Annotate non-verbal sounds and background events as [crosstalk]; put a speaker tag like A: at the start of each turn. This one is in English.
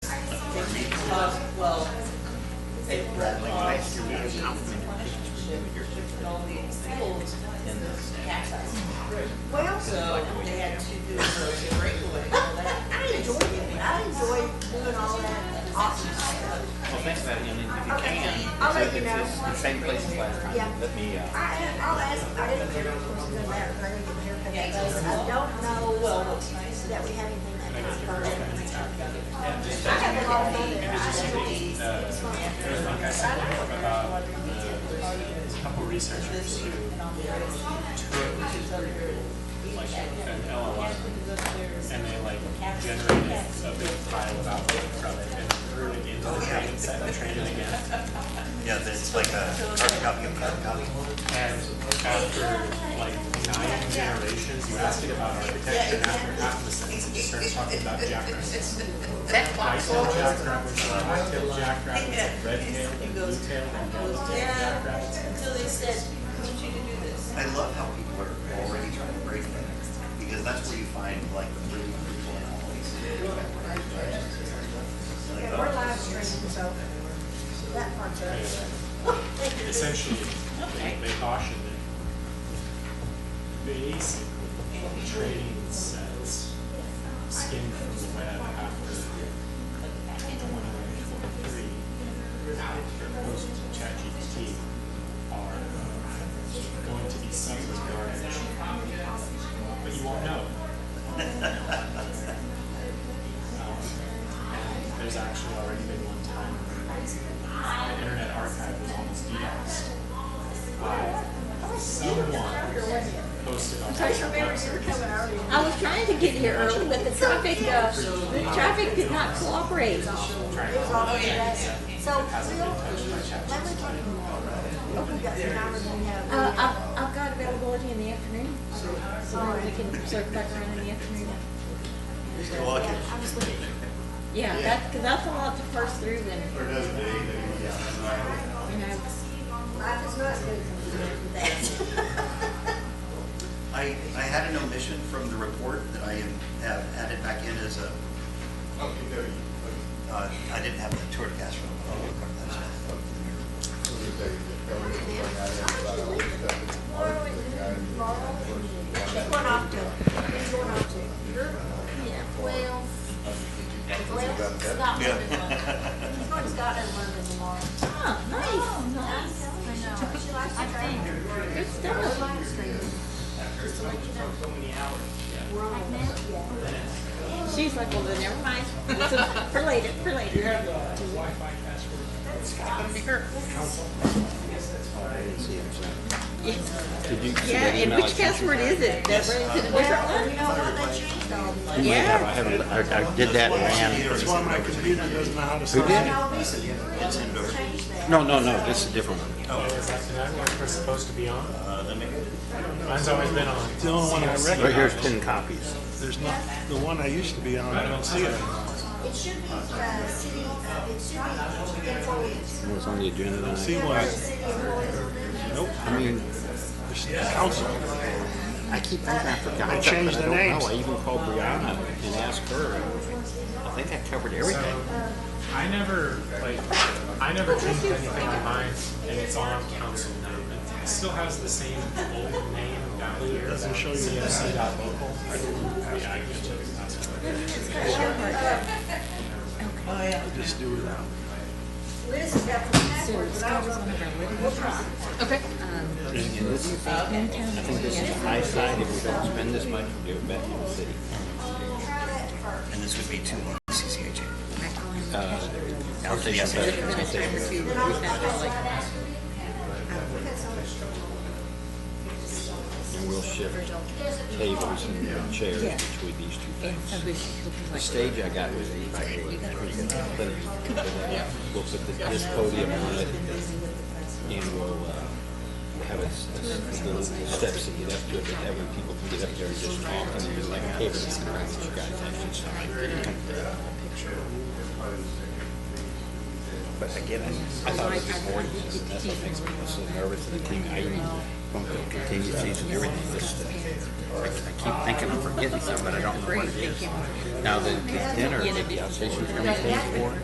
A: because, well, it because and all the schools in this campus.
B: Well,
A: So they had to do a breakaway for that.
B: I enjoy it. I enjoy doing all that awesome stuff.
C: Well, think about it, and if you can,
B: I'll let
C: if
B: you
C: it's
B: know.
C: it's the same place as last
B: Yeah.
C: time, let me, uh,
B: I, I'll ask, I didn't get a course of that, but I didn't get a haircut. I don't know that we have anything that can burn. I have a lot of money there. I just-
D: There's like I said before about the couple researchers who took like an LLM and they like generated a big pile of output from it and threw it into the training set and trained it again.
E: Yeah, it's like a hard copy of hard copy.
D: And after like nine generations, you asked it about architecture and after half the sentence, you started talking about jackrabbits.
A: That's why.
D: White-tailed jackrabbits, black-tailed jackrabbits, red-tailed, and blue-tailed, and yellow-tailed
A: Yeah.
D: jackrabbits.
A: Until they said, we want you to do this.
E: I love how people are already trying to break that, because that's where you find like the really brutal anomalies. Like,
B: Yeah, we're
E: uh,
B: live streaming, so that part's up.
D: essentially, they, they cautioned that basically trading sets skin from the web after twenty-three, proposed to ChatGPT are uh, going to be some of the garbage, but you won't know. [laughs] Um, and There's actually already been one time where the Internet Archive was almost DDoSed by someone posted on their website.
F: I was trying to get here early, but the traffic, uh, the traffic did not cooperate. Uh,
D: Trying
B: It was
D: to
B: all good. So we'll,
D: touch my
B: let me
D: chat.
B: talk tomorrow. If we got some hours in
F: Uh,
B: there.
F: I've, I've got availability in the afternoon, so then we can circle back around in the afternoon.
E: You're lucky.
B: I was looking.
F: Yeah, that, cause that's a lot to parse through then,
E: Or doesn't do anything. yeah.
F: you know.
B: Life is not good.
E: I, I had an omission from the report that I am- have added back in as a, uh, I didn't have the tour de Castro.
B: She's going off to, she's going off to Europe.
F: Yeah, well,
B: Well, Scotland.
E: Yeah.
B: She's going to Scotland, London tomorrow.
F: huh, nice, oh, nice,
B: She likes to travel.
F: good stuff.
B: Live streaming. Just to let you know. We're on it. Yeah.
F: She's like, well, then never
B: [laughs]
F: mind, It's a- for later, for later. Yeah,
C: did you?
F: Yeah, and which password is it? That one, is it a different
B: Well, you
F: one?
B: know what, they changed all these.
F: Yeah.
C: I haven't, I, I did that and ran.
E: It's one of my computer doesn't know how to.
C: Who did?
B: All these changed that.
C: No, no, no, this is a different one.
D: Oh, is that the network we're supposed to be on?
E: Uh, let me,
D: Mine's always been on. The only one I
C: Right here's ten copies.
G: There's not, the one I used to be on, I don't see it.
B: It should be, uh, city, it should be employees.
C: It was on the agenda
G: See one,
C: tonight.
B: City employees. Nope.
C: I mean,
G: there's the council.
C: I keep thinking I forgot.
G: They
C: it,
G: changed the
C: but I don't
G: names.
C: know. I even called Brianna and asked her. I think I covered everything.
D: I never, like, I never changed anything on mine, and it's on council now. It still has the same old name down here. Doesn't show you CFC dot local. Yeah, I can check the password.
A: Oh, yeah.
G: Just do without.
B: Liz has got the
F: So
B: password, but I
F: Scott
B: was
F: was
B: on
F: one
B: the.
F: of our living trust. Okay. Um,
C: I think this is the high side. If we don't spend this much, we'll give it back to the city.
B: Try that first.
E: and this would be two one CCHA.
C: Uh, outpatient
E: Yes.
F: administrator too,
B: Then I'll
F: we've got all like-
C: And we'll shift tables and chairs
F: Yeah.
C: between these two
B: Um,
F: I
C: things.
F: wish it would be
C: The
F: like-
C: stage I got was eight by eight, pretty good, plenty. But then, yeah, We'll put the- this podium on it, and we'll uh, have a s- a s- little steps to get up to it, but that way people can get up there and just talk, and be like, hey, this is the right that you guys actually sound like. But again, I I thought it was just boring, because that's what makes me so nervous, and I think I even, from the contingencies and everything, just, uh, I I keep thinking I'm forgetting something, but I don't know what it is. Now, the the dinner, the outstation's coming to pay for,